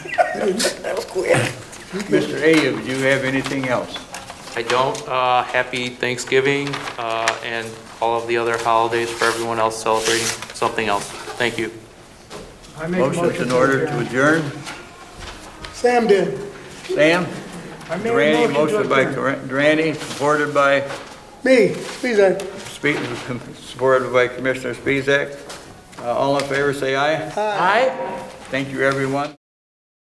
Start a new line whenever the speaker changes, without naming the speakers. That was quick.
Mr. Ayub, do you have anything else?
I don't. Uh, Happy Thanksgiving uh, and all of the other holidays for everyone else celebrating something else. Thank you.
I make a
Motion's
motion
in
to
order to
adjourn.
adjourn.
Sam did.
Sam?
I made a
Durante,
motion to
motion by
adjourn.
Dur- Durante, supported by,
Me, please, I.
Spe- supported by Commissioner Spezak. Uh, All in favor, say aye.
Aye.
Thank you, everyone.